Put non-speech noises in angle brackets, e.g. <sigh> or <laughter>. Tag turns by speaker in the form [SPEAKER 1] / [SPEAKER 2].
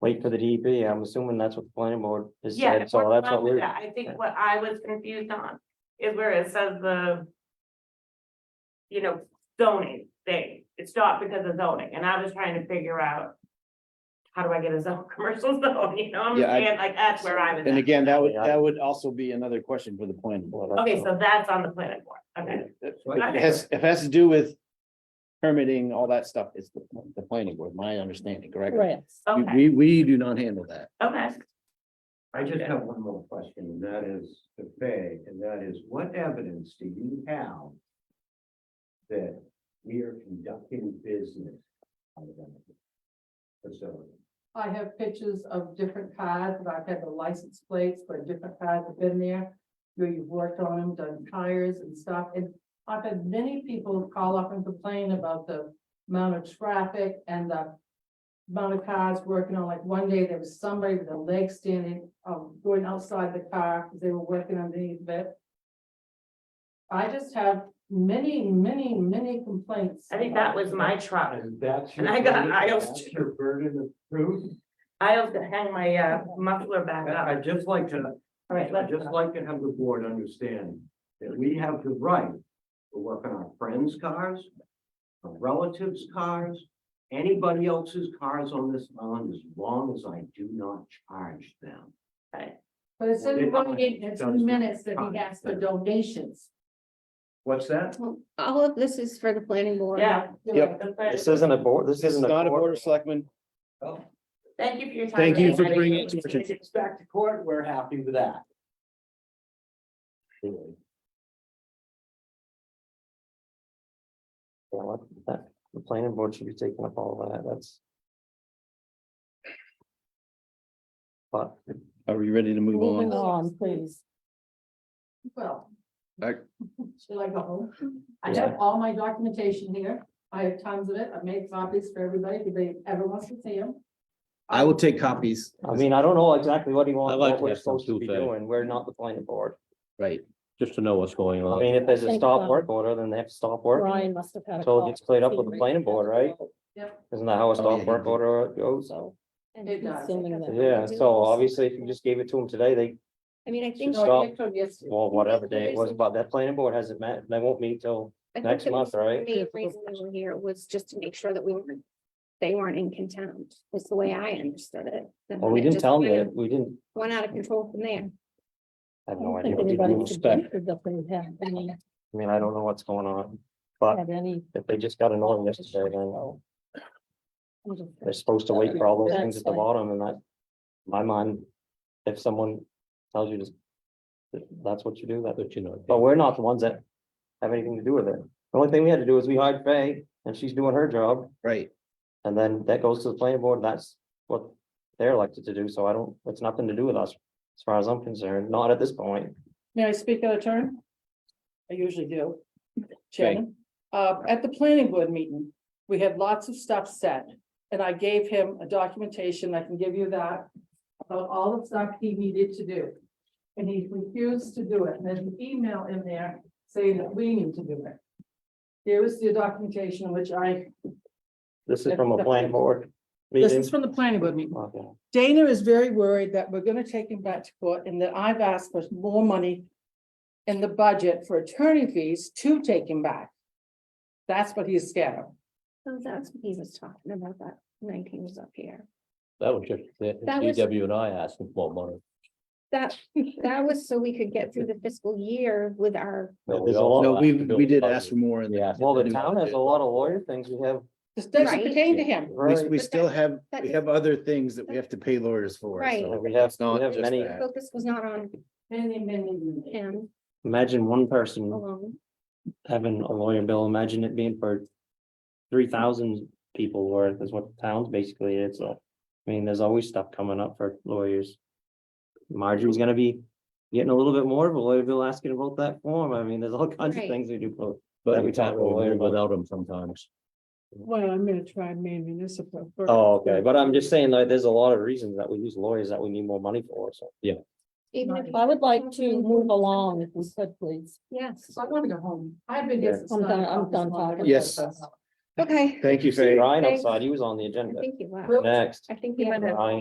[SPEAKER 1] wait for the DEP. I'm assuming that's what the planning board has
[SPEAKER 2] Yeah,
[SPEAKER 1] said, so
[SPEAKER 2] we're
[SPEAKER 1] that's
[SPEAKER 2] fine
[SPEAKER 1] what
[SPEAKER 2] with
[SPEAKER 1] we're,
[SPEAKER 2] that. I think what I was confused on is where it says the. You know, zoning thing, it's not because of zoning, and I was trying to figure out. How do I get a zone, <laughs> commercial zone, you know, I'm
[SPEAKER 3] Yeah, I-
[SPEAKER 2] saying, like, that's where I was.
[SPEAKER 3] And
[SPEAKER 2] at.
[SPEAKER 3] again, that would,
[SPEAKER 1] Yeah.
[SPEAKER 3] that would also be another question for the planning board.
[SPEAKER 1] well, that's
[SPEAKER 2] Okay,
[SPEAKER 1] a-
[SPEAKER 2] so that's on the planning board, okay,
[SPEAKER 3] It has, it has to do with permitting, all that stuff. It's the, the planning board, my understanding, correct?
[SPEAKER 4] Right.
[SPEAKER 3] We-
[SPEAKER 2] okay,
[SPEAKER 3] We, we do not handle that.
[SPEAKER 2] okay,
[SPEAKER 5] I just have one more question, and that is to Fay, and that is, what evidence do you have? That we are conducting business out of that facility?
[SPEAKER 6] I have pictures of different cars, and I've had the license plates where different cars have been there. Where you've worked on them, done tires and stuff, and I've had many people call up and complain about the amount of traffic and the. Amount of cars working on, like one day there was somebody with a leg standing, um, going outside the car, because they were working underneath it. I just have many, many, many complaints.
[SPEAKER 2] I think that was my truck.
[SPEAKER 5] And that's. your
[SPEAKER 2] And I got
[SPEAKER 5] burden-
[SPEAKER 2] aisles
[SPEAKER 5] that's Your burden of proof,
[SPEAKER 2] I have to hang my uh muffler back
[SPEAKER 5] I-
[SPEAKER 2] up,
[SPEAKER 5] I'd just like to,
[SPEAKER 2] all right,
[SPEAKER 5] I'd
[SPEAKER 2] let's,
[SPEAKER 5] just like to have the board understand that we have the right to work on our friends' cars, our relatives' cars, anybody else's cars on this island, as long as I do not charge them.
[SPEAKER 6] But it
[SPEAKER 5] Well,
[SPEAKER 6] said in
[SPEAKER 5] they-
[SPEAKER 6] one minute, it's in minutes that he asked for donations.
[SPEAKER 5] What's that?
[SPEAKER 4] All of this is for the planning board.
[SPEAKER 2] yeah.
[SPEAKER 3] Yep.
[SPEAKER 2] the planning-
[SPEAKER 1] This isn't a board, this
[SPEAKER 3] This is
[SPEAKER 1] isn't a
[SPEAKER 3] not a board
[SPEAKER 1] board.
[SPEAKER 3] of selectmen.
[SPEAKER 2] Thank you for your time.
[SPEAKER 3] Thank you for
[SPEAKER 2] everybody.
[SPEAKER 3] bringing it to attention.
[SPEAKER 5] If it's back to court, we're happy with that.
[SPEAKER 1] Yeah, what- that- The planning board should be taking up all that, that's. But
[SPEAKER 3] Are we ready to move
[SPEAKER 4] Moving
[SPEAKER 3] on?
[SPEAKER 4] on, please.
[SPEAKER 6] Well. <laughs>
[SPEAKER 3] I-
[SPEAKER 6] Should I go home? I
[SPEAKER 1] Yeah.
[SPEAKER 6] have all my documentation here. I have tons of it. I've made copies for everybody if they ever wants to see them.
[SPEAKER 3] I will take copies.
[SPEAKER 1] I mean, I don't know exactly what he
[SPEAKER 7] I'd
[SPEAKER 1] wants,
[SPEAKER 7] like
[SPEAKER 1] what
[SPEAKER 7] to
[SPEAKER 1] we're
[SPEAKER 7] have some
[SPEAKER 1] supposed to be
[SPEAKER 7] too, Fay.
[SPEAKER 1] doing. We're not the planning board.
[SPEAKER 3] Right.
[SPEAKER 7] just to know what's going
[SPEAKER 1] I
[SPEAKER 7] on.
[SPEAKER 1] mean, if there's a
[SPEAKER 4] Thank
[SPEAKER 1] stop
[SPEAKER 4] God.
[SPEAKER 1] work order, then they have to stop work.
[SPEAKER 4] Ryan must have had a
[SPEAKER 1] So it
[SPEAKER 4] call.
[SPEAKER 1] gets cleared up with the planning board, right?
[SPEAKER 6] Yep.
[SPEAKER 1] Isn't that how a
[SPEAKER 3] Oh, yeah,
[SPEAKER 1] stop work
[SPEAKER 3] yeah.
[SPEAKER 1] order goes?
[SPEAKER 4] So. and
[SPEAKER 6] It does.
[SPEAKER 4] assuming that-
[SPEAKER 1] Oh, Yeah, so obviously if you just gave it to them today, they,
[SPEAKER 4] I mean, I think.
[SPEAKER 1] Stop.
[SPEAKER 6] No, I picked them yesterday.
[SPEAKER 1] well, whatever day it was, but that planning board hasn't met, they won't meet till
[SPEAKER 4] I think
[SPEAKER 1] next
[SPEAKER 4] the
[SPEAKER 1] month, right?
[SPEAKER 4] Main reason we were here was just to make sure that we weren't, they weren't in contempt, was the way I understood it. And
[SPEAKER 1] Well, we
[SPEAKER 4] it
[SPEAKER 1] didn't
[SPEAKER 4] just
[SPEAKER 1] tell
[SPEAKER 4] kind
[SPEAKER 1] them,
[SPEAKER 4] of
[SPEAKER 1] that. we didn't,
[SPEAKER 4] Went out of control from there.
[SPEAKER 1] I have
[SPEAKER 4] I don't
[SPEAKER 1] no idea.
[SPEAKER 4] think
[SPEAKER 1] what to do.
[SPEAKER 4] anybody
[SPEAKER 1] I
[SPEAKER 4] suggested that they had any,
[SPEAKER 1] mean, I don't know what's going on, but
[SPEAKER 4] had any.
[SPEAKER 1] if they just got annoying yesterday, then
[SPEAKER 4] So, oh. I'm just-
[SPEAKER 1] they're supposed to wait for all those things at the
[SPEAKER 4] That's fine.
[SPEAKER 1] bottom and that, in my mind, if someone tells you to, that- that's what you do, that,
[SPEAKER 7] But you know.
[SPEAKER 1] But we're not the ones that have anything to do with it. The only thing we had to do is we hired Faye and she's doing her job.
[SPEAKER 3] Right.
[SPEAKER 1] And then that goes to the planning board. That's what they're elected to do. So I don't, it's nothing to do with us. As far as I'm concerned, not at this point.
[SPEAKER 6] May I speak out of turn? I usually do. Chairman, uh, at the planning board meeting, we had lots of stuff said, and I gave him a documentation, I can give you that. About all the stuff he needed to do. And he refused to do it, and there's an email in there saying that we need to do it. Here is the documentation which I,
[SPEAKER 1] This is from a planning board
[SPEAKER 6] this is
[SPEAKER 1] meeting.
[SPEAKER 6] from the planning board meeting.
[SPEAKER 1] Okay.
[SPEAKER 6] Dana is very worried that we're gonna take him back to court and that I've asked for more money. In the budget for attorney fees to take him back. That's what he's scared of.
[SPEAKER 4] So that's what he was talking about, that night he was up here.
[SPEAKER 7] That was just, the
[SPEAKER 4] That was-
[SPEAKER 7] DW and I asking for money.
[SPEAKER 4] That, that was so we could get through the fiscal year with our,
[SPEAKER 1] Yeah,
[SPEAKER 7] we
[SPEAKER 1] there's a
[SPEAKER 7] all
[SPEAKER 3] No,
[SPEAKER 1] lot-
[SPEAKER 7] asked
[SPEAKER 3] we,
[SPEAKER 7] to build
[SPEAKER 3] we did
[SPEAKER 7] the
[SPEAKER 3] ask for more in
[SPEAKER 7] Yeah.
[SPEAKER 3] the.
[SPEAKER 1] Well, the town has a lot of lawyer things we have.
[SPEAKER 6] This doesn't
[SPEAKER 4] Right.
[SPEAKER 6] pertain to him.
[SPEAKER 3] We,
[SPEAKER 1] Right.
[SPEAKER 3] we still have,
[SPEAKER 4] that
[SPEAKER 3] we
[SPEAKER 4] is-
[SPEAKER 3] have other things that we have to pay lawyers for.
[SPEAKER 4] Right.
[SPEAKER 3] so
[SPEAKER 1] We have-
[SPEAKER 3] it's not
[SPEAKER 1] we have
[SPEAKER 3] just
[SPEAKER 1] many-
[SPEAKER 3] that.
[SPEAKER 4] focus was not on
[SPEAKER 6] Many, many, many.
[SPEAKER 4] him
[SPEAKER 1] Imagine one person
[SPEAKER 4] alone.
[SPEAKER 1] having a lawyer bill. Imagine it being for three thousand people worth is what the towns basically is. So, I mean, there's always stuff coming up for lawyers. Marjorie's gonna be getting a little bit more of a lawyer bill asking about that form. I mean, there's all kinds of
[SPEAKER 4] Right.
[SPEAKER 1] things we do. for-
[SPEAKER 7] But
[SPEAKER 1] Every
[SPEAKER 7] we can't
[SPEAKER 1] time we're
[SPEAKER 7] really
[SPEAKER 1] worried
[SPEAKER 7] live
[SPEAKER 1] about-
[SPEAKER 7] without them sometimes.
[SPEAKER 6] Well, I'm gonna try Maine municipal. first.
[SPEAKER 1] Oh, okay. But I'm just saying, like, there's a lot of reasons that we use lawyers that we need more money for, so.
[SPEAKER 4] Even if,
[SPEAKER 8] I would like to move along if we could, please.
[SPEAKER 4] yes,
[SPEAKER 6] I want to go home. I've been here
[SPEAKER 1] Yeah.
[SPEAKER 6] since.
[SPEAKER 8] I'm
[SPEAKER 6] nine
[SPEAKER 8] done- I'm
[SPEAKER 6] o'clock this
[SPEAKER 8] done
[SPEAKER 6] morning.
[SPEAKER 8] talking.
[SPEAKER 3] Yes.
[SPEAKER 6] Yes.
[SPEAKER 4] okay,
[SPEAKER 3] Thank you,
[SPEAKER 1] See
[SPEAKER 3] Faye.
[SPEAKER 1] Ryan
[SPEAKER 4] Thanks.
[SPEAKER 1] outside, he was on the
[SPEAKER 4] I
[SPEAKER 1] agenda.
[SPEAKER 4] think you left.
[SPEAKER 1] Next,
[SPEAKER 4] I think he had.
[SPEAKER 1] Ryan.